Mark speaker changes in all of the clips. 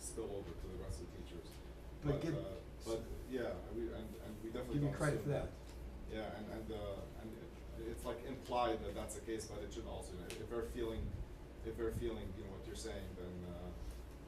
Speaker 1: spill over to the rest of the teachers.
Speaker 2: But give-
Speaker 1: uh, But, yeah, we, and, and we definitely
Speaker 2: Give me
Speaker 1: don't
Speaker 2: credit for
Speaker 1: assume
Speaker 2: that.
Speaker 1: Yeah, and, and, uh, and it, it's like implied that that's the case, but it should also, you know, if they're feeling, if they're feeling, you know, what you're saying, then, uh,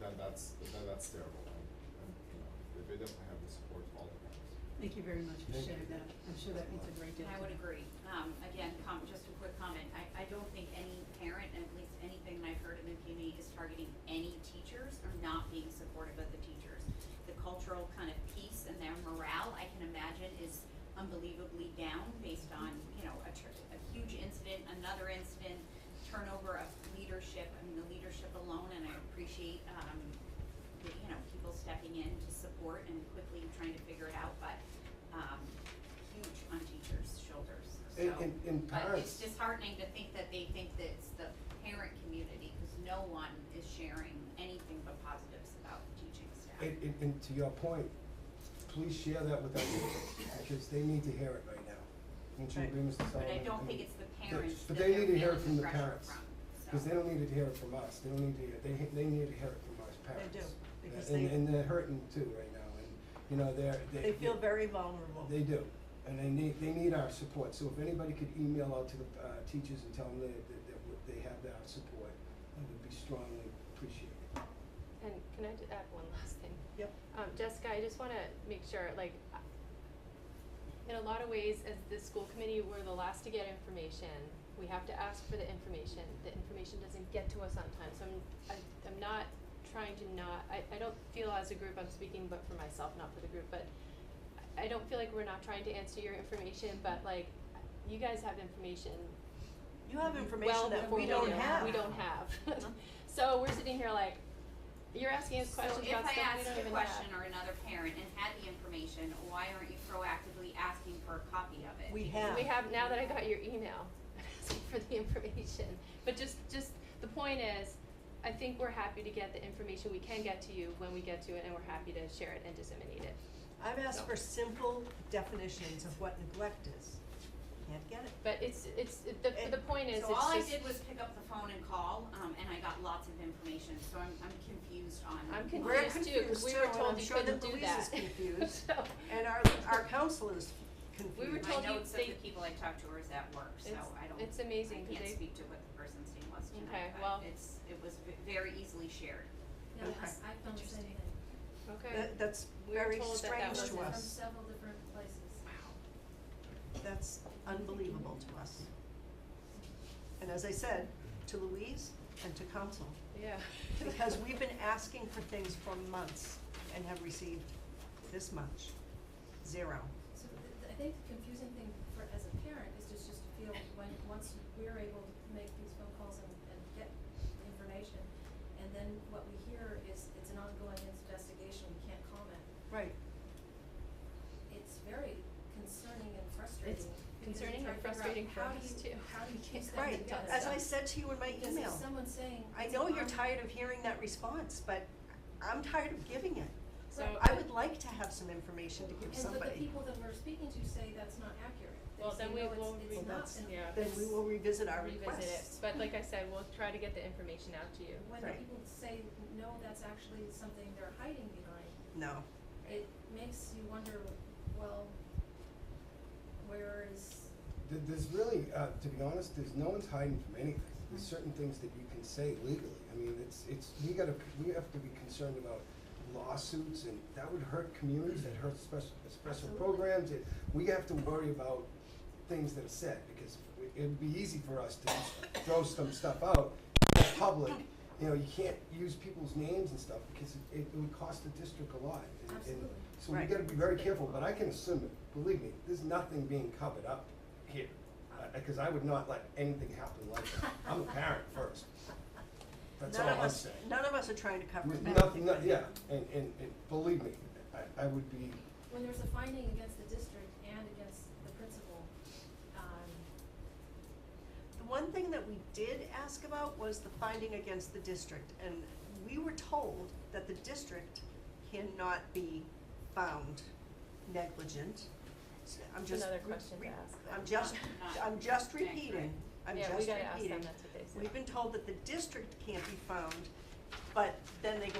Speaker 1: then that's, then that's terrible, and, and, you know, they- they definitely have the support of all the parents.
Speaker 3: Thank you very much for
Speaker 2: Thank
Speaker 3: sharing
Speaker 2: you.
Speaker 3: that. I'm sure that means a great deal.
Speaker 4: I
Speaker 3: to
Speaker 4: would
Speaker 3: them.
Speaker 4: agree. Um, again, com- just a quick comment. I, I don't think any parent, and at least anything that I've heard of MPME is targeting any teachers or not being supportive of the teachers. The cultural kind of piece and their morale, I can imagine, is unbelievably down based on, you know, a tr- a huge incident, another incident, turnover of leadership, I mean, the leadership alone, and I appreciate, um, the, you know, people stepping in to support and quickly trying to figure it out, but, um, huge on teachers' shoulders, so.
Speaker 2: And- and- and
Speaker 4: But
Speaker 2: parents-
Speaker 4: it's disheartening to think that they think that it's the parent community, cause no one is sharing anything but positives about the teaching staff.
Speaker 2: And, and, and to your point, please share that with our kids, because they need to hear it right now. Don't you
Speaker 3: Right.
Speaker 2: agree, Mr.
Speaker 4: But I
Speaker 2: Sullivan?
Speaker 4: don't think it's the parents
Speaker 2: but
Speaker 4: that
Speaker 2: they
Speaker 4: they're
Speaker 2: need to hear it from
Speaker 4: feeling the
Speaker 2: the
Speaker 4: pressure
Speaker 2: parents,
Speaker 4: from, so.
Speaker 2: Because they don't need to hear it from us, they don't need to hear, they, he- they need to hear it from us parents.
Speaker 3: do, because
Speaker 2: And,
Speaker 3: they-
Speaker 2: and they're hurting too right now, and, you know, they're, they.
Speaker 5: They feel very vulnerable.
Speaker 2: They do, and they need, they need our support, so if anybody could email out to the, uh, teachers and tell them that, that, that w- they have our support, that would be strongly appreciated.
Speaker 6: And can I just add one last thing?
Speaker 5: Yep.
Speaker 6: Um, Jessica, I just wanna make sure, like, I- in a lot of ways, as the school committee, we're the last to get information. We have to ask for the information. The information doesn't get to us on time, so I'm, I, I'm not trying to not, I, I don't feel as a group, I'm speaking but for myself, not for the group, but I, I don't feel like we're not trying to answer your information, but like, you guys have information
Speaker 5: You have information
Speaker 6: well
Speaker 5: that
Speaker 6: before
Speaker 5: we don't
Speaker 6: do.
Speaker 5: have.
Speaker 6: We don't have. so we're sitting here like, you're asking us questions about
Speaker 4: So
Speaker 6: stuff we don't
Speaker 4: if I asked a
Speaker 6: even
Speaker 4: question
Speaker 6: have.
Speaker 4: or another parent and had the information, why aren't you proactively asking for a copy of it?
Speaker 5: We have.
Speaker 6: We have now that I got your email, I'm asking for the information. But just just the point is, I think we're happy to get the information we can get to you when we get to it, and we're happy to share it and disseminate it.
Speaker 5: I've asked for simple definitions of what neglect is. Can't get it.
Speaker 6: But it's it's it- the
Speaker 5: And
Speaker 6: the point is
Speaker 4: So all I
Speaker 6: it's
Speaker 4: did
Speaker 6: just
Speaker 4: was pick up the phone and call, um, and I got lots of information, so I'm, I'm confused on.
Speaker 6: I'm
Speaker 4: why-
Speaker 5: We're
Speaker 6: confused too because
Speaker 5: confused
Speaker 6: we
Speaker 5: too,
Speaker 6: were
Speaker 5: and I'm
Speaker 6: told you
Speaker 5: sure that
Speaker 6: couldn't do
Speaker 5: Louise
Speaker 6: that.
Speaker 5: is confused.
Speaker 6: So-
Speaker 5: And our, our counselors
Speaker 6: We
Speaker 5: confused.
Speaker 6: were told
Speaker 4: My
Speaker 6: you
Speaker 4: notes of the
Speaker 6: they-
Speaker 4: people I talked to was at work, so
Speaker 6: It's-
Speaker 4: I don't.
Speaker 6: it's amazing
Speaker 4: I can't
Speaker 6: 'cause they-
Speaker 4: speak to what the person's name was
Speaker 6: Okay,
Speaker 4: tonight,
Speaker 6: well-
Speaker 4: but it's, it was v- very easily shared.
Speaker 7: No, I,
Speaker 5: Okay.
Speaker 7: I've done the same
Speaker 4: Interesting.
Speaker 7: thing.
Speaker 6: okay.
Speaker 5: That, that's
Speaker 6: We were
Speaker 5: very
Speaker 6: told that that
Speaker 5: strange to
Speaker 6: was
Speaker 7: I've done it
Speaker 5: us.
Speaker 7: From several different places.
Speaker 5: That's unbelievable to us. And as I said, to Louise and to council,
Speaker 6: Yeah.
Speaker 5: because we've been asking for things for months and have received this much, zero.
Speaker 7: So th- th- I think the confusing thing for, as a parent, is just, just to feel when, once we're able to make these phone calls and, and get the information, and then what we hear is, it's an ongoing investigation, we can't comment.
Speaker 5: Right.
Speaker 7: It's very concerning and frustrating. because you're
Speaker 6: concerning and
Speaker 7: trying to figure
Speaker 6: frustrating
Speaker 7: out
Speaker 6: for
Speaker 7: how do
Speaker 6: us,
Speaker 7: you-
Speaker 6: too.
Speaker 7: How do you
Speaker 6: We
Speaker 7: keep
Speaker 6: can't
Speaker 7: that
Speaker 5: Right,
Speaker 7: together?
Speaker 5: as I said to you in my
Speaker 7: Because if
Speaker 5: email,
Speaker 7: someone's saying.
Speaker 5: I
Speaker 7: it's
Speaker 5: know
Speaker 7: an
Speaker 5: you're
Speaker 7: on-
Speaker 5: tired of hearing that response, but I'm tired of giving it.
Speaker 6: So
Speaker 5: I would like to have some information to give
Speaker 7: And but the
Speaker 5: somebody.
Speaker 7: people that we're speaking to say that's not accurate. They
Speaker 6: Well,
Speaker 7: say,
Speaker 6: then we
Speaker 7: "No, it's-
Speaker 6: will
Speaker 7: it's
Speaker 6: re-
Speaker 7: not."
Speaker 5: that's-
Speaker 7: And
Speaker 6: yeah.
Speaker 5: Then we will revisit our
Speaker 6: revisit it.
Speaker 5: requests.
Speaker 6: But like I said, we'll try to get the information out to you.
Speaker 7: When
Speaker 5: Right.
Speaker 7: people say, no, that's actually something they're hiding behind,
Speaker 5: No,
Speaker 7: it makes you wonder, well, where is,
Speaker 2: Th- There's really, uh, to be honest, there's no one's hiding from anything. There's
Speaker 7: Mm-hmm.
Speaker 2: certain things that you can say legally. I mean, it's, it's, we gotta, we have to be concerned about lawsuits and that would hurt communities, that hurts special, special
Speaker 7: Absolutely.
Speaker 2: programs. It- We have to worry about things that are said because we- it'd be easy for us to just throw some stuff out in public. You know, you can't use people's names and stuff because it- it would cost the district a lot. And- and
Speaker 7: Absolutely.
Speaker 2: So we
Speaker 5: Right.
Speaker 2: gotta be very careful, but I can assume it, believe me, there's nothing being covered up here. Because I would not let anything happen like that. I'm a parent first. That's all
Speaker 5: none of
Speaker 2: I'm
Speaker 5: us,
Speaker 2: saying.
Speaker 5: none of us are trying to cover up
Speaker 2: With Nothing,
Speaker 5: anything.
Speaker 2: no- yeah, and, and, and believe me, I, I would be,
Speaker 7: when there's a finding against the district and against the principal, um,
Speaker 5: The one thing that we did ask about was the finding against the district, and we were told that the district cannot be found negligent. So I'm
Speaker 6: That's
Speaker 5: just.
Speaker 6: another
Speaker 5: re-
Speaker 6: question to
Speaker 5: re-
Speaker 6: ask them.
Speaker 5: I'm just,
Speaker 4: Not-
Speaker 5: I'm just
Speaker 4: not-
Speaker 5: repeating, I'm
Speaker 6: yeah,
Speaker 5: just repeating.
Speaker 6: we gotta ask them. That's what they said.
Speaker 5: We've been told that the district can't be found, but then they go